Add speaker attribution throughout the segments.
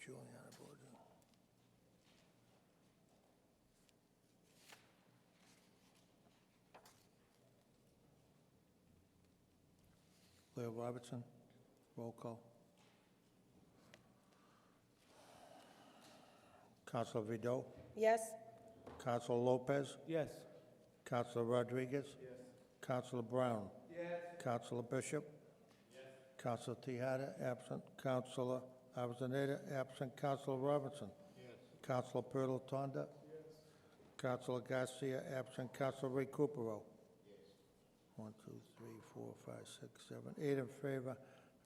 Speaker 1: Juliana Boardman. Blair Robertson, roll call. Counselor Vido,
Speaker 2: Yes.
Speaker 1: Counselor Lopez,
Speaker 3: Yes.
Speaker 1: Counselor Rodriguez. Yes. Counselor Brown. Yes. Counselor Bishop. Yes. Counselor Tahada, absent. Counselor Avellaneda, absent. Counselor Robinson. Yes. Counselor Pilatanda. Yes. Counselor Garcia, absent. Counselor Recupero. One, two, three, four, five, six, seven, eight in favor,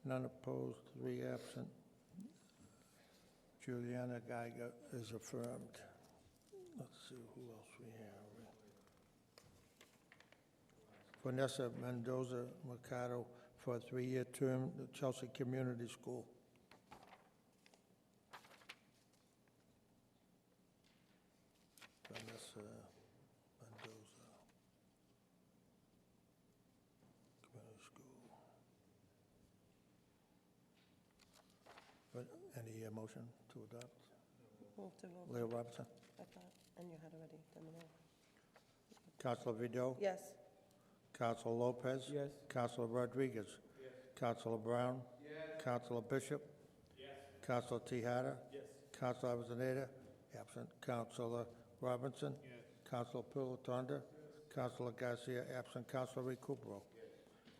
Speaker 1: none opposed, three absent. Juliana Geiger is affirmed. Let's see who else we have. Vanessa Mendoza Mercado for a three-year term, the Chelsea Community School. Vanessa Mendoza. Community School. But any uh, motion to adopt?
Speaker 2: Move to move,
Speaker 1: Leah Robinson?
Speaker 2: I thought, and you had already done the move.
Speaker 1: Counselor Vido?
Speaker 2: Yes.
Speaker 1: Counselor Lopez?
Speaker 3: Yes.
Speaker 1: Counselor Rodriguez? Yes. Counselor Brown? Yes. Counselor Bishop? Yes. Counselor Tahada? Yes. Counselor Avellaneda? Absent. Counselor Robinson? Yes. Counselor Pilatanda? Yes. Counselor Garcia, absent. Counselor Recupero? Yes.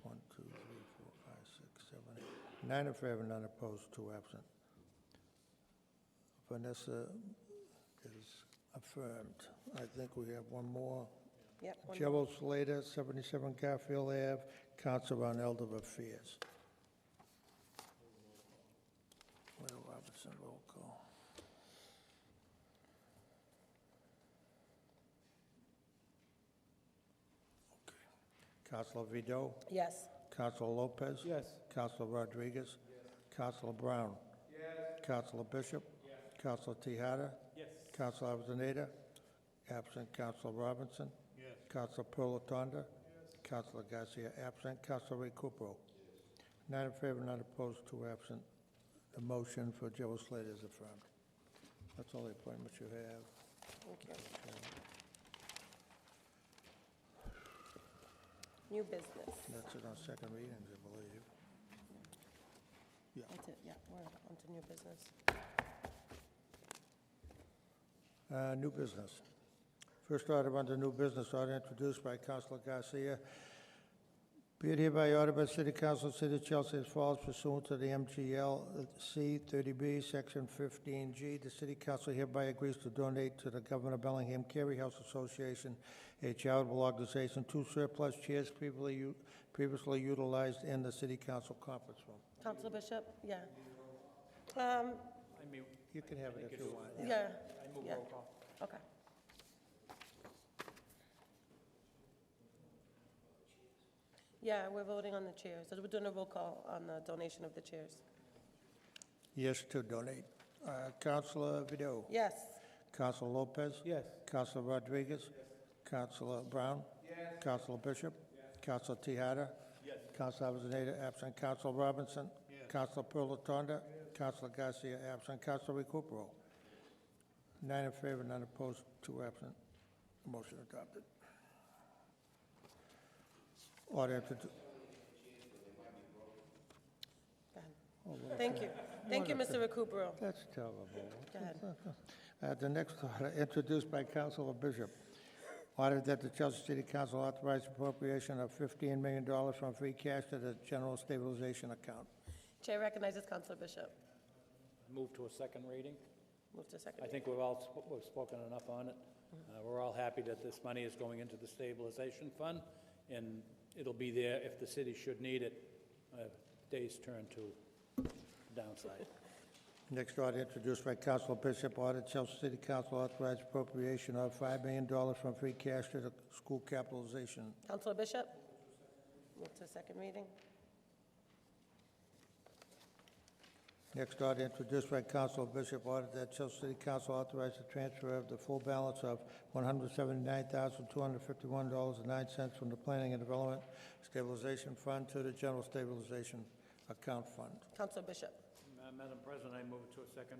Speaker 1: One, two, three, four, five, six, seven, eight. Nine in favor, none opposed, two absent. Vanessa is affirmed. I think we have one more.
Speaker 2: Yep. one-
Speaker 1: Gerald Slater, 77 Garfield Ave, Council on Elder Affairs. Will Robinson, roll call. Okay. Counselor Vido,
Speaker 2: Yes.
Speaker 1: Counselor Lopez.
Speaker 3: Yes.
Speaker 1: Counselor Rodriguez. Counselor Brown. Yes. Counselor Bishop. Yes. Counselor Tahada.
Speaker 3: Yes.
Speaker 1: Counselor Avellaneda. Absent Counselor Robinson. Yes. Counselor Pilatanda. Yes. Counselor Garcia, absent. Counselor Recupero. Nine in favor, none opposed, two absent. The motion for Gerald Slater is affirmed. That's all the appointments you have.
Speaker 2: Thank you. New business.
Speaker 1: That's it on second readings, I believe.
Speaker 2: That's it, yeah, we're on to new business.
Speaker 1: Uh, New business. First order under new business, order introduced by Councilor Garcia. Be it hereby ordered by City Council, City of Chelsea, as follows pursuant to the MGL C thirty B, Section fifteen G. The City Council hereby agrees to donate to the Governor of Bellingham Carey House Association, a charitable organization, two surplus chairs previously, u- previously utilized in the City Council conference room.
Speaker 2: Counselor Bishop, yeah. Um,
Speaker 3: I mean,
Speaker 1: You can have it if you want.
Speaker 2: yeah,
Speaker 3: I move
Speaker 2: yeah,
Speaker 3: roll call.
Speaker 2: okay. Yeah, we're voting on the chairs, we're doing a roll call on the donation of the chairs.
Speaker 1: Yes, to donate. Uh, Councilor Vido.
Speaker 2: Yes,
Speaker 1: Councilor Lopez.
Speaker 3: Yes.
Speaker 1: Counselor Rodriguez? Yes. Counselor Brown? Yes. Counselor Bishop? Yes. Counselor Tahada? Yes. Counselor Avellaneda, absent. Counselor Robinson? Yes. Counselor Pilatanda? Yes. Counselor Garcia, absent. Counselor Recupero? Nine in favor, none opposed, two absent. Motion adopted. Order introduced.
Speaker 2: go ahead. Thank you, thank you, Mr. Recupero.
Speaker 1: That's terrible.
Speaker 2: Go ahead.
Speaker 1: Uh, The next order, introduced by Councilor Bishop, order that the Chelsea City Council authorize appropriation of $15 million from free cash to the general stabilization account.
Speaker 2: Chair recognizes Counselor Bishop.
Speaker 3: Move to a second reading.
Speaker 2: Move to second.
Speaker 3: I think we've all, sp- we've spoken enough on it. Uh, We're all happy that this money is going into the stabilization fund, and it'll be there if the city should need it. Uh, Days turn to downside.
Speaker 1: Next order, introduced by Councilor Bishop, order Chelsea City Council authorize appropriation of $5 million from free cash to the school capitalization.
Speaker 2: Counselor Bishop? Move to second reading.
Speaker 1: Next order, introduced by Councilor Bishop, order that Chelsea City Council authorize the transfer of the full balance of $179,251.09 from the Planning and Development Stabilization Fund to the General Stabilization Account Fund.
Speaker 2: Counselor Bishop?
Speaker 3: Ma- Madam President, I move to a second